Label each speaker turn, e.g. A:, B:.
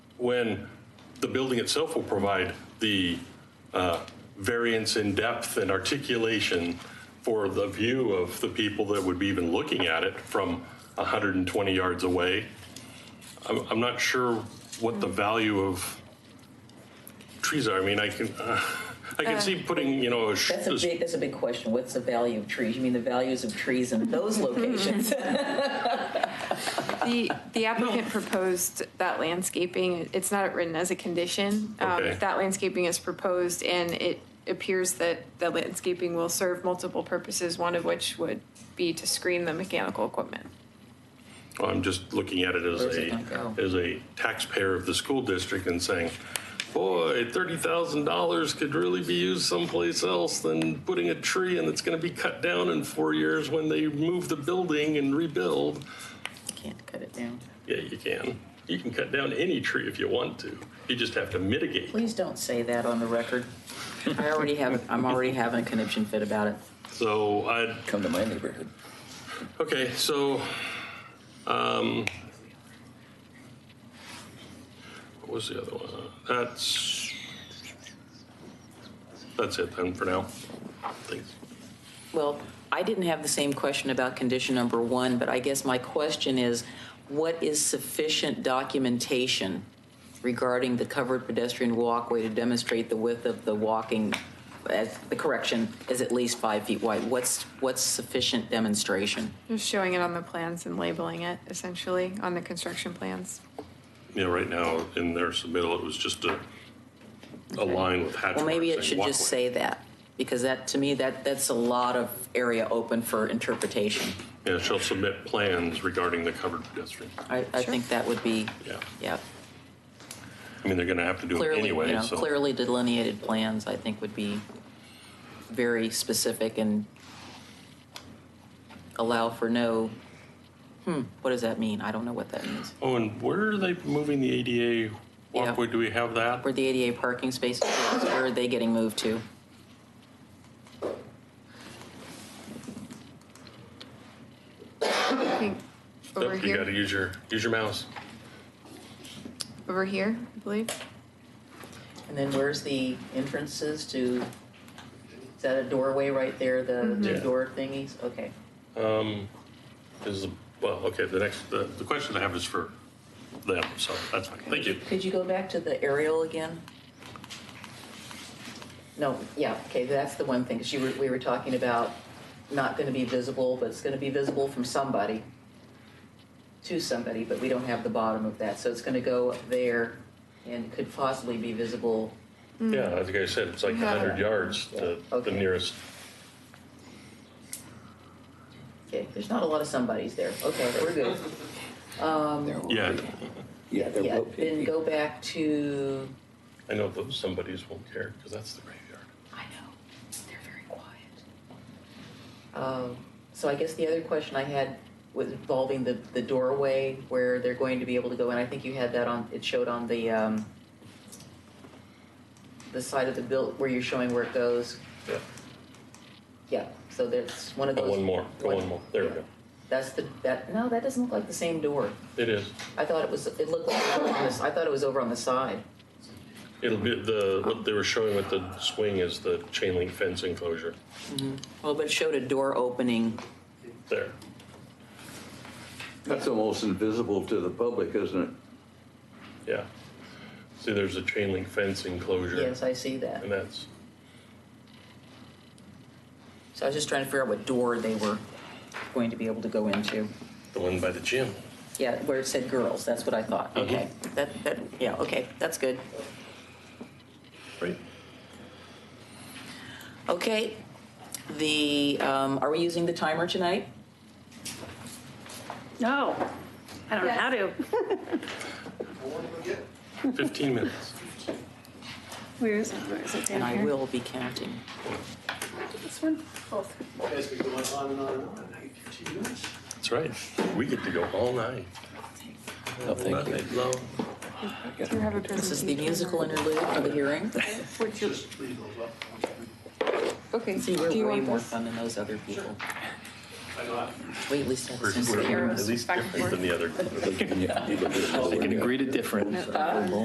A: when the building itself will provide the uh, variance in depth and articulation for the view of the people that would be even looking at it from 120 yards away. I'm, I'm not sure what the value of trees are. I mean, I can, uh, I can see putting, you know, a. sh-
B: That's a big, that's a big question. What's the value of trees? You mean the values of trees in those locations?
C: The, the applicant proposed that landscaping, it's not written as a condition. Um,
A: Okay.
C: That landscaping is proposed and it appears that the landscaping will serve multiple purposes, one of which would be to screen the mechanical equipment.
A: I'm just looking at it as
B: Where's it
A: a,
B: gonna go?
A: as a taxpayer of the school district and saying, boy, thirty thousand dollars could really be used someplace else than putting a tree and it's gonna be cut down in four years when they move the building and rebuild.
B: Can't cut it down.
A: Yeah, you can. You can cut down any tree if you want to. You just have to mitigate.
B: Please don't say that on the record. I already have, I'm already having a conniption fit about it.
A: So I,
D: Come to my neighborhood.
A: okay, so, um, what was the other one? Uh, That's, that's it then for now. Thanks.
B: Well, I didn't have the same question about condition number one, but I guess my question is, what is sufficient documentation regarding the covered pedestrian walkway to demonstrate the width of the walking, as, the correction is at least five feet wide? What's, what's sufficient demonstration?
C: Just showing it on the plans and labeling it essentially on the construction plans.
A: Yeah, right now in their submittal, it was just a, a line with hatch
B: Well, maybe it
A: marks
B: should
A: saying
B: just
A: walkway.
B: say that, because that, to me, that, that's a lot of area open for interpretation.
A: Yeah, shall submit plans regarding the covered pedestrian.
B: I, I think that would be,
A: Yeah.
B: yeah,
A: I mean, they're gonna have to do it
B: clearly, you
A: anyway,
B: know,
A: so.
B: clearly delineated plans, I think would be very specific and allow for no, hmm, what does that mean? I don't know what that means.
A: Oh, and where are they moving the ADA walkway? Do we have that?
B: Where the ADA parking spaces, are, where are they getting moved to?
C: I think over
A: Nope, You gotta
C: here,
A: use your, use your mouse.
C: over here, I believe.
B: And then where's the entrances to, is that a doorway right there, the
A: Yeah.
B: door thingies? Okay.
A: Is, well, okay, the next, the, the question I have is for them, so that's fine. Thank you.
B: Could you go back to the aerial again? No, yeah, okay, that's the one thing, 'cause you were, we were talking about not gonna be visible, but it's gonna be visible from somebody, to somebody, but we don't have the bottom of that, so it's gonna go there and could possibly be visible.
A: Yeah, as I said, it's like a hundred yards to the
B: Mm. Okay.
A: nearest.
B: Okay, there's not a lot of somebodies there, okay, we're good.
D: There will
A: Yeah,
D: be- Yeah, there
B: Yeah,
D: will be.
B: then go back to,
A: I know those somebodies won't care, because that's the graveyard.
B: I know, they're very quiet. Um, So I guess the other question I had was involving the, the doorway where they're going to be able to go in. I think you had that on, it showed on the, um, the side of the build, where you're showing where it goes.
A: Yeah.
B: Yeah, so that's one of
A: Go
B: those.
A: one more, go one more. There we go.
B: That's the, that, no, that doesn't look like the same door.
A: It is.
B: I thought it was, it looked like, it was on this- I thought it was over on the side.
A: It'll be the, what they were showing with the swing is the chain link fence enclosure.
B: Well, but it showed a door opening.
A: There.
E: That's almost invisible to the public, isn't it?
A: Yeah. See, there's a chain link fence enclosure.
B: Yes, I see that.
A: And that's,
B: So I was just trying to figure out what door they were going to be able to go into.
A: The one by the gym.
B: Yeah, where it said girls, that's what I thought. Okay, that, that, yeah, okay, that's good.
A: Right.
B: Okay, the, um, are we using the timer tonight?
F: No, I don't know how to.
A: Fifteen minutes.
F: Where is it? Where is it
B: And
F: down
B: I
F: here?
B: will be counting.
F: This one? Both.
G: As we go on and on and on, I get to yours.
A: That's right. We get to go all night.
D: Oh, thank you.
A: Night long.
C: Do you have a
B: This is the
C: presentation?
B: musical interlude for the hearing.
C: Would you-
G: Just leave those up.
C: Okay, do
B: See, we're
C: you
B: way
C: want
B: more
C: this?
B: fun than those other people.
G: I know I-
B: We at least have a
A: We're-
B: sense of
A: we're
B: humor.
A: At least
C: back and
A: different than the other.
D: They can agree to different.